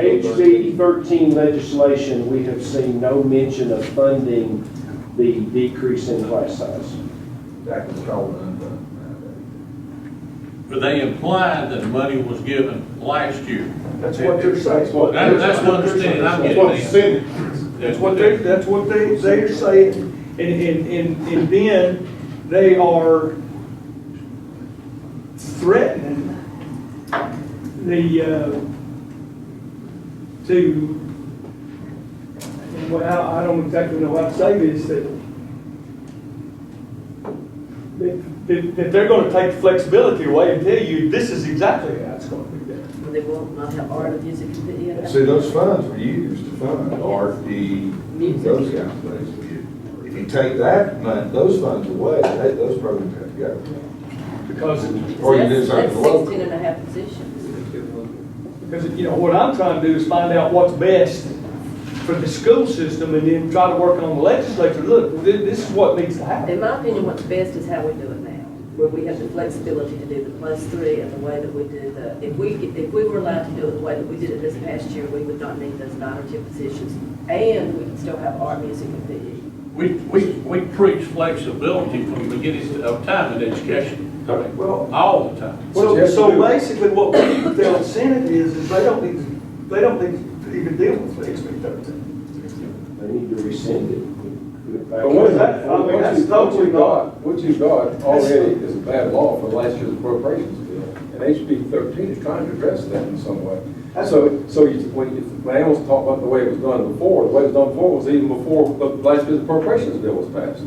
HB thirteen legislation, we have seen no mention of funding the decrease in class size. That was called unfunded. But they implied that money was given last year. That's uh, what they're saying. That- That's my understanding, I'm getting that. That's what they, that's what they, they're saying, and, and, and, and then they are threatening the, uh, to, and what, I, I don't exactly know how to say this, that that, that- that they're gonna take flexibility away and tell you, this is exactly how it's gonna be done. They won't not have art and music and video. See, those funds were used to fund art, the, Music. those kind of things. If you take that, mon- those funds away, they- those programs have to go. Because Or you do That's- something That's local. sixteen and a half positions. Because, you know, what I'm trying to do is find out what's best for the school system and then try to work on the legislature. Look, thi- this is what needs to In happen. my opinion, what's best is how we do it now, where we have the flexibility to do the plus three and the way that we do the, if we, if we were allowed to do it the way that we did it this past year, we would not need those nine or ten positions, and we can still have art, music, and video. We, we, we preach flexibility from the beginning of time in education, Well, all the time. What you so, have to so do- basically what we tell the Senate is, is they don't need, to- they don't need to even deal with HB thirteen. They need to rescind it. But what is that? I mean, What that's you, what totally you got, what you got already is a bad law for last year's appropriations bill. And HB thirteen is trying to address that in some way. So, so you, when, you- when Al's talking about the way it was done before, the way it was done before was even before the last year's appropriations bill was passed.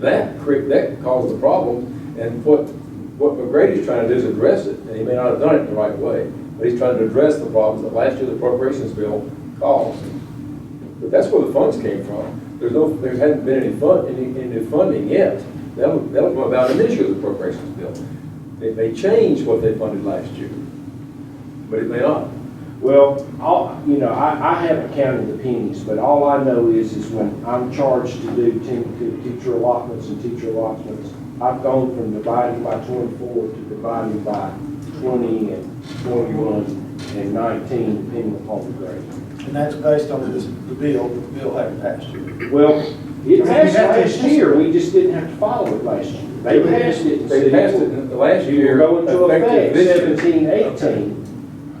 That cre, that caused the problem, and what, what McGrady's trying to do is address it, and he may not have done it the right way, but he's trying to address the problems that last year's appropriations bill caused. But that's where the funds came from. There's no, there hadn't been any fund, any, any funding yet. That was, that was about an issue of the appropriations bill. They, they changed what they funded last year, but it may not. Well, all, you know, I, I haven't counted the pennies, but all I know is, is when I'm charged to do te- to teacher allotments and teacher allotments, I've gone from dividing by twenty-four to dividing by twenty and twenty-one and nineteen, depending upon the grade. And that's based on this, the bill, the bill having passed you. Well, it But we passed have to- last year, we just didn't have to follow it last year. They passed it. and They said passed it will- in the last It year. will go into effective effect this year. seventeen, eighteen,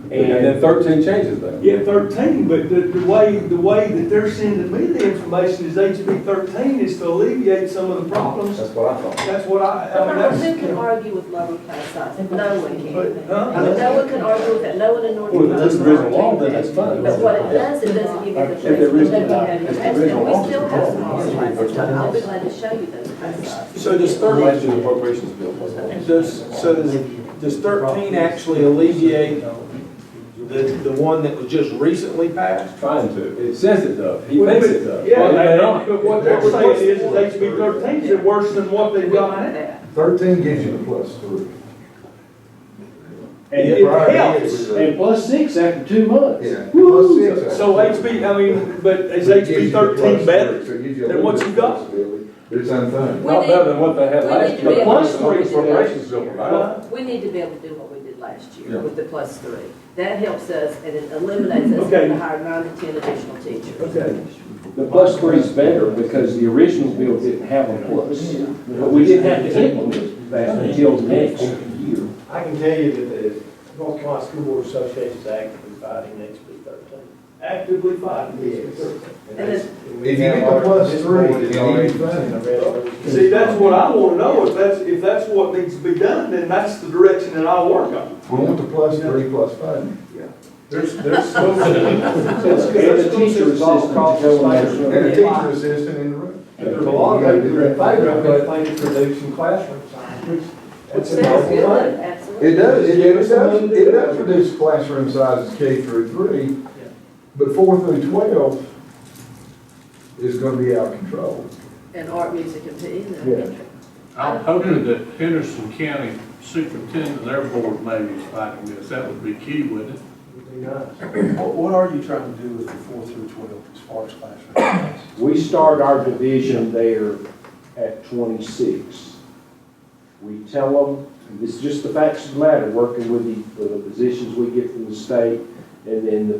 And and then thirteen changes that. Yeah, thirteen, but the, the way, the way that they're sending me the information is HB thirteen is to alleviate some of the problems. That's what I thought. That's what I, I mean, that's. Who can argue with lower class size? No one But, can. huh? I mean, no one can argue with that, no one in North Well, Carolina. that's the original law, then that's fine. But what it does, it doesn't give you the If there is- flexibility that you if have. there is a And we law, still it's have a some law. hard classes. I'll be glad to show you those class sizes. So does Last thirteen, year's appropriations bill was on. does, so does, does thirteen actually alleviate the, the one that was just recently passed? Trying to. It says it does. He thinks it does. Yeah, But it but may not. but what they're saying is, is HB thirteen is worse than what they've got now. Thirteen gives you the plus three. And It helps. And plus six after two months. Yeah. Woo! Plus six. So HB, I mean, but is It gives HB you the plus thirteen three, so better? it gives you a than what little you bit of got? flexibility, But it's unfunded. We Not need- better than what they had we last need to year. be able to do that. Appropriations bill provided. We need to be able to do what we did last year Yeah. with the plus three. That helps us and it eliminates us Okay. having to hire nine to ten additional teachers. Okay. The plus three is better because the original bill didn't have a plus. But we didn't have to implement that until next year. I can tell you that the North Carolina School Board Association is actively fighting HB thirteen. Actively fighting HB thirteen. And it's- If you get the plus three, then you need funding. See, that's what I wanna know, if that's, if that's what needs to be done, then that's the direction that I'll work on. We want the plus three plus funding. There's, there's so. And the teacher assistant And a teacher assistant in the room. There's a lot of people in favor of it, think it's reducing classroom size, which, that's a Sounds noble good, thing. absolutely. It does, it it does, it does reduce classroom sizes K through three, but four through twelve is gonna be out of control. And art, music and Yeah. PE. I'm hoping that Henderson County Superintendent, their board maybe is fighting this, that would be key, wouldn't it? What, what are you trying to do with the four through twelve as far as classroom? size? We start our division there at twenty-six. We tell them, it's just the facts of the matter, working with the, with the positions we get from the state, and then the